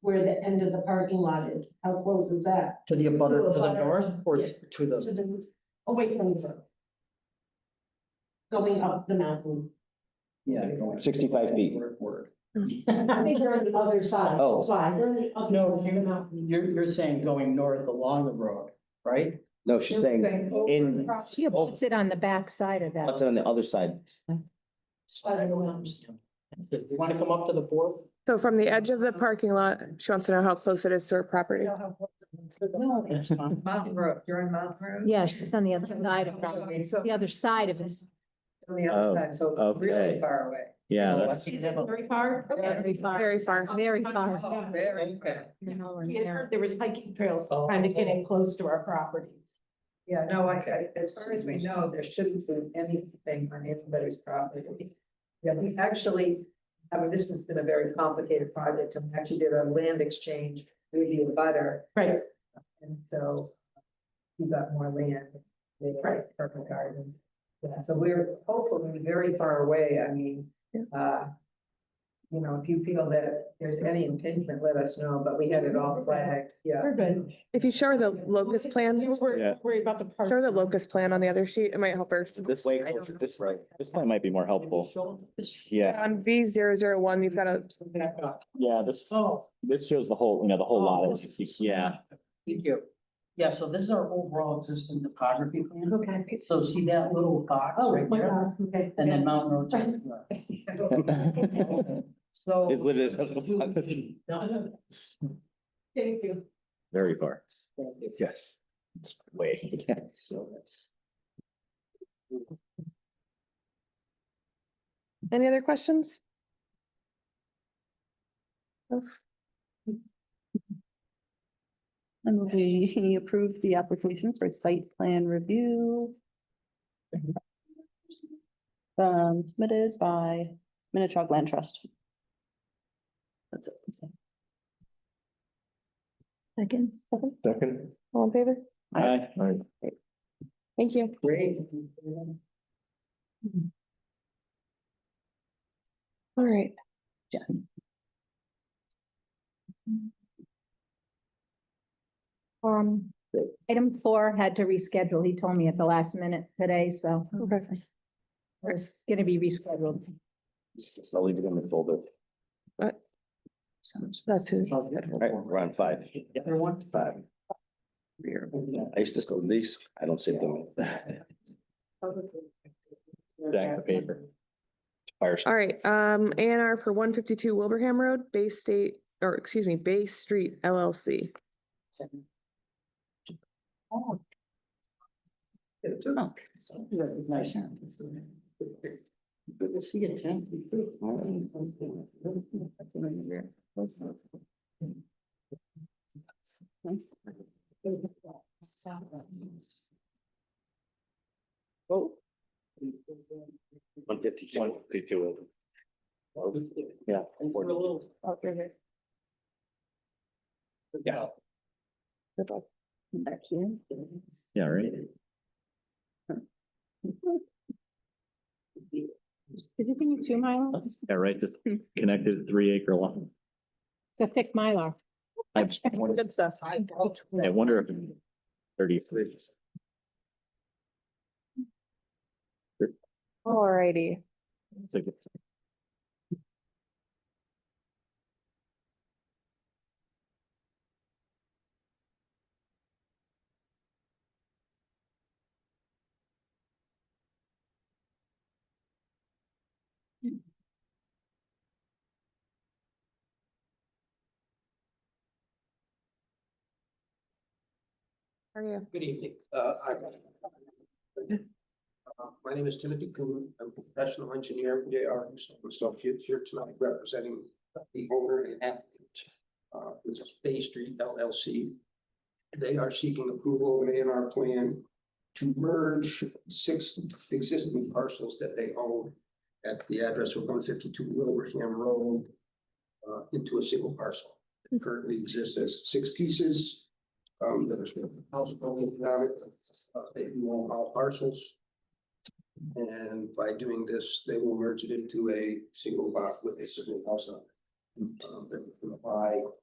where the end of the parking lot is, how close is that? To the abutter, To to the abutter, north or yeah. to the, To the, away from the road. Going up the mountain. yeah. 65 feet. Word, word. I think they're on the other side, Oh. that's why, they're on the No, other side of the mountain. You're, you're saying going north along the road, right? No, she's saying in, She Oh. puts it on the back side of what's that. on the other side? Side of the mountain. Do you want to come up to the fourth? So from the edge of the parking lot, she wants to know how close it is to her property. No, it's fine. Mountain Road, you're on Mountain Road? Yeah, she's on the other side of it, So the other side of it. on the other Oh, side, so really okay. far away. Yeah, Oh, I that's, can have a- Very far. Very far. Very far. Very far. Oh, Very far. An hour and We had a half. heard there was hiking trails, kind of getting close to our properties. Yeah, no, I, I- as far as we know, there shouldn't be anything on anybody's property. Yeah, we actually, I mean, this has been a very complicated project, and we actually did a land exchange with the butter, Right, and so we got more land, they got purple garden. Yeah, so we're hopefully very far away, I mean, Yeah. uh, you know, if you feel that there's any impingement, let us know, but we had it all flagged, yeah. we're good. If you show her the locust plan, We show were Yeah. worried about the park. her the locust plan on the other sheet. It might help her. this way, I don't closer- know. this way, this one might be more helpful. Yeah, On V zero zero one, you've got a, yeah, this, Oh, this shows the whole, you know, the whole lot. of 60 Yeah, thank you. Yeah, so this is our overall existing topography plan. Okay. So see that little box Oh, right my there? God, okay. And then Mountain Road. to the left. So. It literally- Thank you. very far. Yes. It's way. So that's. any other questions? And we approve the application for site plan review. Um, submitted by Minichog Land Trust. That's it. Second. Second. All in favor? Hi. Thank you. Great. All right. Jen. Um, item four had to reschedule. He told me at the last minute today, so Okay. it's gonna be rescheduled. So I'll leave it in the folder. That's who. All right, we're on five. Other one? Five. I used to sell these. I don't save them. Stack the paper. Fire. All right, um, A and R for one fifty-two Wilbraham Road, Bay State, or excuse me, Bay Street LLC. Nice. Good to see you, Tim. Oh. One fifty-two. One fifty-two. Yeah. Yeah. Back here. Yeah, right. Did you give me two mylar? Yeah, right, just connected three acre lot. It's a thick mylar. I wonder- Good stuff. I wonder if thirty-three. All righty. It's like- How are you? Good evening. Uh, I'm- Uh, My name is Timothy Coon. I'm a professional engineer, J R Associates, here tonight representing the owner and applicant. uh, Which is Bay Street LLC. They are seeking approval of an A and R plan to merge six existing parcels that they own at the address of one fifty-two Wilbraham Road uh, into a single parcel. It currently exists as six pieces. Um, there's a house building on it, uh, they do own all parcels. And by doing this, they will merge it into a single lot with a single house on it. Um, they're gonna buy